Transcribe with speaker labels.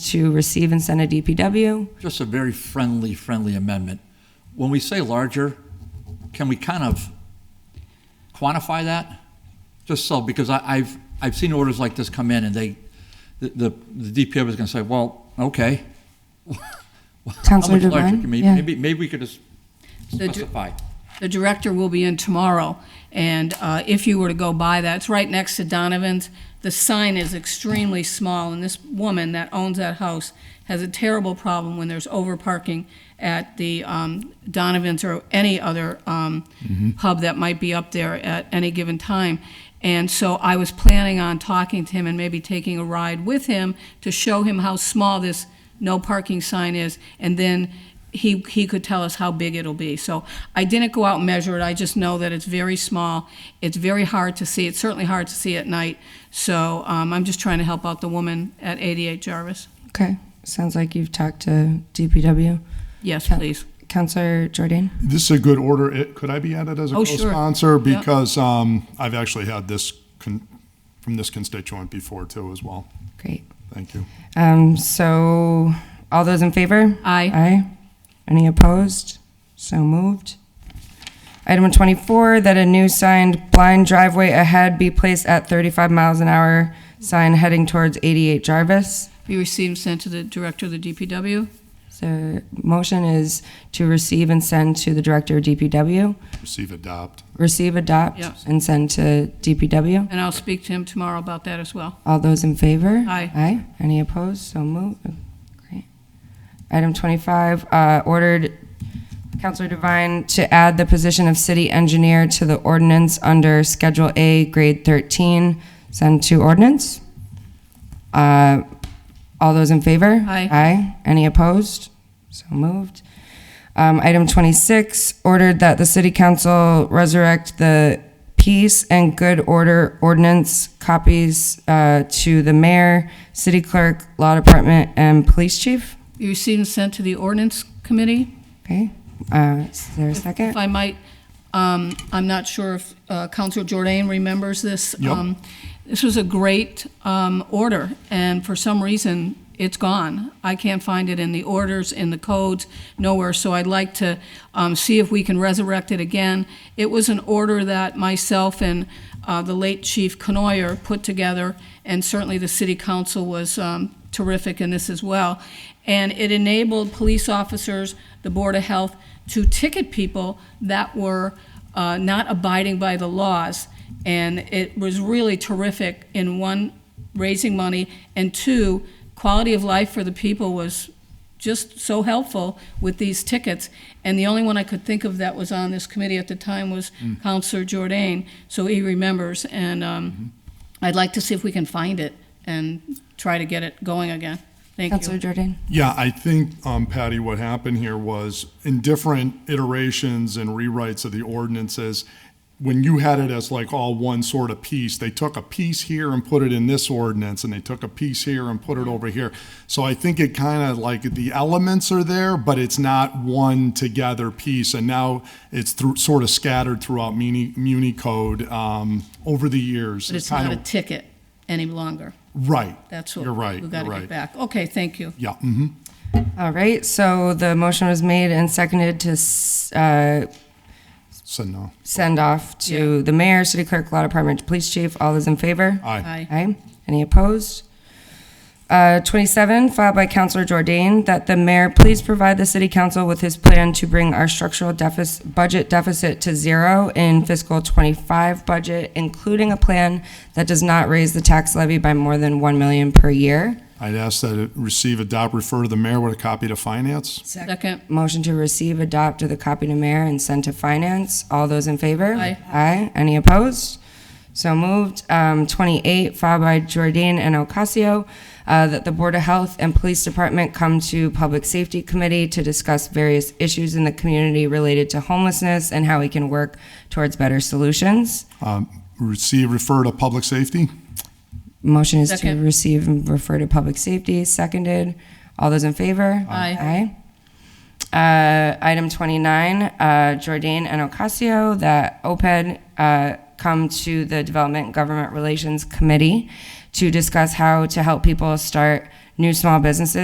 Speaker 1: to receive and send to DPW.
Speaker 2: Just a very friendly, friendly amendment. When we say larger, can we kind of quantify that? Just so, because I, I've, I've seen orders like this come in and they, the, the the DPW is gonna say, well, okay. How
Speaker 1: Counselor
Speaker 2: much larger
Speaker 1: Devine?
Speaker 2: can we,
Speaker 1: Yeah.
Speaker 2: maybe, maybe we could just
Speaker 3: The dir-
Speaker 2: specify.
Speaker 3: The director will be in tomorrow, and uh, if you were to go by that, it's right next to Donovan's. The sign is extremely small, and this woman that owns that house has a terrible problem when there's over parking at the um, Donovan's or any other um, pub that might be up there at any given time. And so I was planning on talking to him and maybe taking a ride with him to show him how small this no parking sign is, and then he, he could tell us how big it'll be. So I didn't go out and measure it, I just know that it's very small, it's very hard to see, it's certainly hard to see at night. So um, I'm just trying to help out the woman at 88 Jarvis.
Speaker 1: Okay, sounds like you've talked to DPW.
Speaker 3: Yes,
Speaker 1: Coun-
Speaker 3: please.
Speaker 1: Counselor Jordan?
Speaker 4: This is a good order. It- Could I be added as a
Speaker 3: Oh, sure.
Speaker 4: co-sponsor?
Speaker 3: Yeah.
Speaker 4: Because um, I've actually had this con- from this constituent before too as well.
Speaker 1: Great.
Speaker 4: Thank you.
Speaker 1: Um, so, all those in favor?
Speaker 3: Aye.
Speaker 1: Aye. Any opposed? So moved. Item twenty-four, that a new signed blind driveway ahead be placed at thirty-five miles an hour, sign heading towards eighty-eight Jarvis.
Speaker 3: Be received and sent to the director of the DPW.
Speaker 1: So, motion is to receive and send to the Director of DPW,
Speaker 4: Receive, adopt.
Speaker 1: receive, adopt,
Speaker 3: Yeah.
Speaker 1: and send to DPW.
Speaker 3: And I'll speak to him tomorrow about that as well.
Speaker 1: All those in favor?
Speaker 3: Aye.
Speaker 1: Aye. Any opposed? So moved. Great. Item 25, uh, ordered Counselor Devine to add the position of city engineer to the ordinance under Schedule A, Grade 13, send to ordinance. Uh, All those in favor?
Speaker 3: Aye.
Speaker 1: Aye. Any opposed? So moved. Um, Item 26, ordered that the city council resurrect the peace and good order ordinance copies uh, to the mayor, city clerk, law department, and police chief.
Speaker 3: Be received and sent to the ordinance committee.
Speaker 1: Okay, Uh, is there a second?
Speaker 3: If I might, um, I'm not sure if uh, Counselor Jordan remembers this.
Speaker 4: Yep.
Speaker 3: Um, This was a great um, order, and for some reason, it's gone. I can't find it in the orders, in the codes, nowhere, so I'd like to um, see if we can resurrect it again. It was an order that myself and uh, the late Chief Canoyer put together, and certainly the city council was um, terrific in this as well. And it enabled police officers, the Board of Health, to ticket people that were uh, not abiding by the laws. And it was really terrific in one, raising money, and two, quality of life for the people was just so helpful with these tickets. And the only one I could think of that was on this committee at the time was
Speaker 4: Mm.
Speaker 3: Counselor Jordan, so he remembers. And
Speaker 4: Mm-hmm.
Speaker 3: um, I'd like to see if we can find it and try to get it going again. Thank you.
Speaker 1: Counselor Jordan?
Speaker 4: Yeah, I think, um, Patty, what happened here was in different iterations and rewrites of the ordinances, when you had it as like all one sort of piece, they took a piece here and put it in this ordinance, and they took a piece here and put it over here. So I think it kind of like the elements are there, but it's not one together piece. And now it's through, sort of scattered throughout muni, muni code, um, over the years.
Speaker 3: But it's
Speaker 4: kind
Speaker 3: not a
Speaker 4: of-
Speaker 3: ticket any longer.
Speaker 4: Right.
Speaker 3: That's what.
Speaker 4: You're right,
Speaker 3: We've
Speaker 4: you're
Speaker 3: got to get
Speaker 4: right.
Speaker 3: back. Okay, thank you.
Speaker 4: Yeah, mhm.
Speaker 1: All right, so the motion was made and seconded to s- uh,
Speaker 4: So no,
Speaker 1: send off to the mayor, city clerk, law department, police chief. All those in favor?
Speaker 4: aye.
Speaker 3: Aye.
Speaker 1: Aye. Any opposed? Uh, 27, filed by Counselor Jordan, that the mayor please provide the city council with his plan to bring our structural deficit, budget deficit to zero in fiscal '25 budget, including a plan that does not raise the tax levy by more than 1 million per year.
Speaker 4: I'd ask that it receive, adopt, refer to the mayor with a copy to finance.
Speaker 3: Second,
Speaker 1: Motion to receive, adopt with a copy to mayor and send to finance. All those in favor?
Speaker 3: Aye.
Speaker 1: Aye. Any opposed? So moved. Um, 28, filed by Jordan and Ocasio, uh, that the Board of Health and Police Department come to Public Safety Committee to discuss various issues in the community related to homelessness and how we can work towards better solutions.
Speaker 4: Um, Receive, refer to public safety.
Speaker 1: Motion is to
Speaker 3: Second.
Speaker 1: receive and refer to public safety, seconded. All those in favor?
Speaker 3: Aye.
Speaker 1: Aye. Uh, Item 29, uh, Jordan and Ocasio, that OPED uh, come to the Development Government Relations Committee to discuss how to help people start new small businesses